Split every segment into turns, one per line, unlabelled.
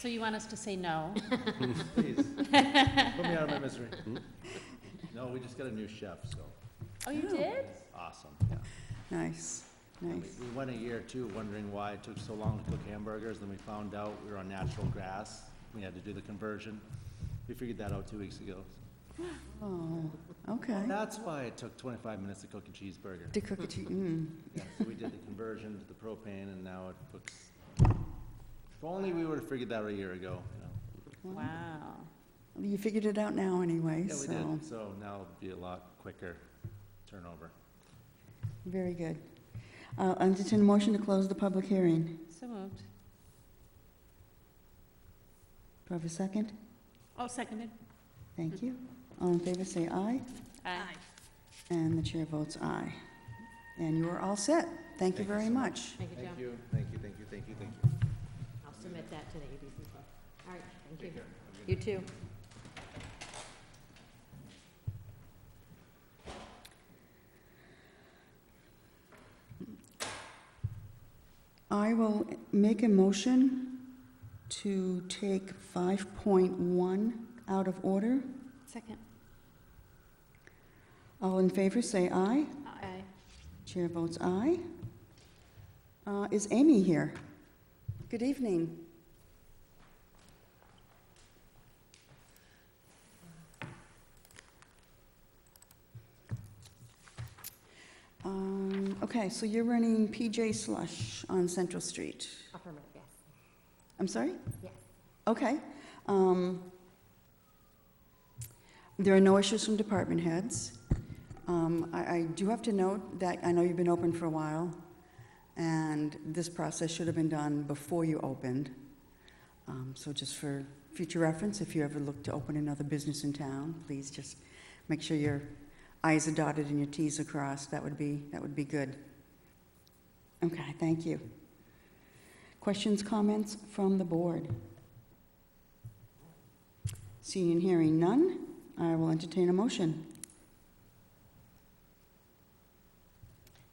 So you want us to say no?
Please, put me out of my misery. Hmm? No, we just got a new chef, so,
Oh, you did?
awesome, yeah.
Nice,
We
nice.
we went a year or two wondering why it took so long to cook hamburgers, then we found out we were on natural grass. We had to do the conversion. We figured that out two weeks ago.
Oh, okay.
That's why it took twenty-five minutes to cook a cheeseburger.
To cook a cheese, mm,
Yeah, so we did the conversion to the propane, and now it cooks. If only we would've figured that out a year ago, you know.
Mm-hmm.
Wow.
you figured it out now anyway,
Yeah, we
so,
did, so now it'll be a lot quicker turnover.
very good. I'll entertain a motion to close the public hearing.
So moved.
Do I have a second?
Oh, seconded.
Thank you. All in favor, say aye.
Aye.
And the chair votes aye. And you are all set. Thank you
Thank you
very
so
much.
Thank you, Joe.
you, thank you, thank you, thank you, thank you.
I'll submit that to the ABCC. All right, thank you.
care. Have a good
You too.
I will make a motion to take 5.1 out of order.
Second.
All in favor, say aye.
Aye.
Chair votes aye. Uh, Is Amy here? Good evening. Um, Okay, so you're running PJ Slush on Central Street.
Affirmative, yes.
I'm sorry?
Yes.
Okay. Um, There are no issues from department heads. Um, I I do have to note that, I know you've been open for a while, and this process should have been done before you opened. Um, So just for future reference, if you ever look to open another business in town, please just make sure your i's are dotted and your t's are crossed. That would be, that would be good. Okay, thank you. Questions, comments from the board? Seeing and hearing none, I will entertain a motion.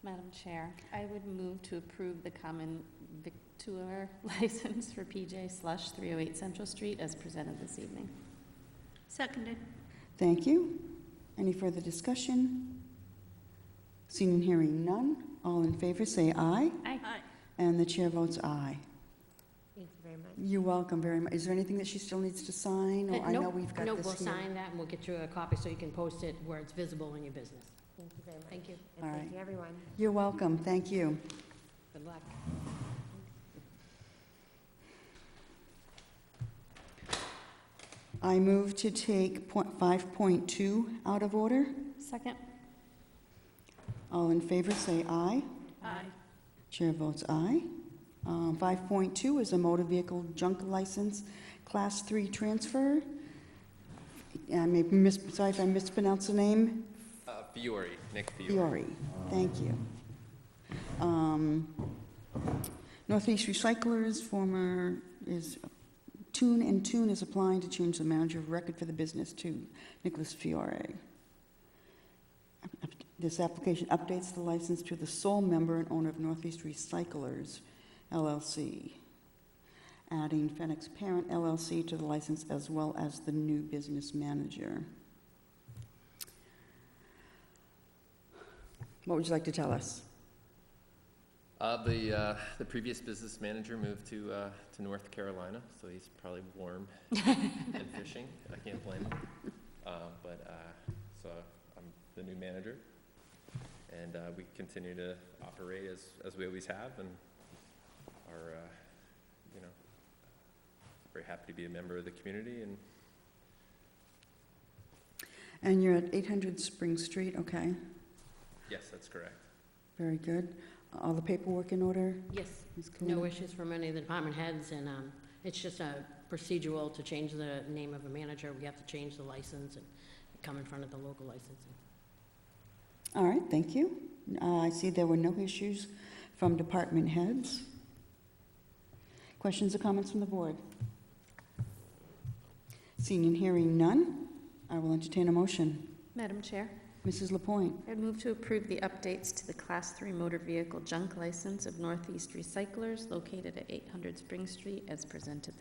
Madam Chair, I would move to approve the common victular license for PJ Slush 308 Central Street as presented this evening. Seconded.
Thank you. Any further discussion? Seeing and hearing none, all in favor say aye,
Aye.
and the chair votes aye.
Thank you very much.
You're welcome very much. Is there anything that she still needs to sign? Or
Uh,
I know
nope,
we've got
nope,
this
we'll
here.
sign that, and we'll get you a copy so you can post it where it's visible in your business. Thank you very much. Thank you.
And All thank right.
you, everyone.
You're welcome, thank you.
Good luck.
I move to take point- 5.2 out of order.
Second.
All in favor say aye.
Aye.
Chair votes aye. Um, 5.2 is a motor vehicle junk license, Class 3 transfer. I may mis, sorry if I mispronounced the name,
Uh, Fiore, Nick Fiore.
Fiore. Thank you. Um, Northeast Recyclers, former, is, Tune and Tune is applying to change the manager of record for the business to Nicholas Fiore. This application updates the license to the sole member and owner of Northeast Recyclers LLC, adding Fenix Parent LLC to the license as well as the new business manager. What would you like to tell us?
Uh, the, uh, the previous business manager moved to, uh, to North Carolina, so he's probably warm and fishing. I can't blame him. Uh, but, uh, so I'm the new manager. And, uh, we continue to operate as, as we always have and are, uh, you know, very happy to be a member of the community and
And you're at 800 Spring Street, okay,
yes, that's correct.
very good. All the paperwork in order?
Yes,
Ms.
no
Kalina?
issues from any of the department heads, and um, it's just a procedural to change the name of a manager. We have to change the license and come in front of the local licensing.
All right, thank you. Uh, I see there were no issues from department heads. Questions or comments from the board? Seeing and hearing none, I will entertain a motion.
Madam Chair,
Mrs. Lapointe,
I'd move to approve the updates to the Class 3 motor vehicle junk license of Northeast Recyclers located at 800 Spring Street as presented